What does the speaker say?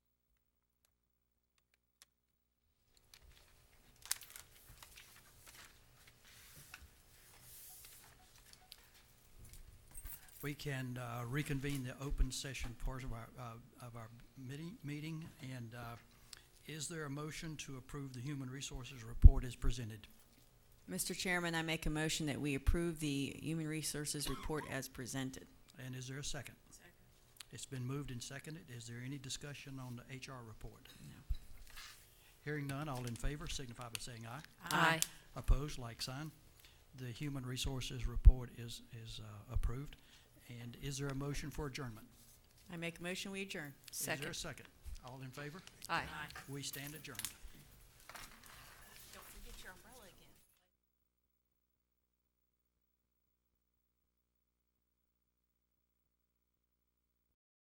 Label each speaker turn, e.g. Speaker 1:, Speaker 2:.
Speaker 1: we can uh, reconvene the open session part of our, uh, of our meeting- meeting. And uh, is there a motion to approve the Human Resources Report as presented?
Speaker 2: Mr. Chairman, I make a motion that we approve the Human Resources Report as presented.
Speaker 1: And is there a second?
Speaker 2: Second.
Speaker 1: It's been moved and seconded. Is there any discussion on the HR report? Hearing none, all in favor signify by saying aye.
Speaker 2: Aye.
Speaker 1: Opposed, like sign. The Human Resources Report is, is uh, approved. And is there a motion for adjournment?
Speaker 2: I make a motion, we adjourn.
Speaker 1: Is there a second? All in favor?
Speaker 2: Aye.
Speaker 1: We stand adjourned.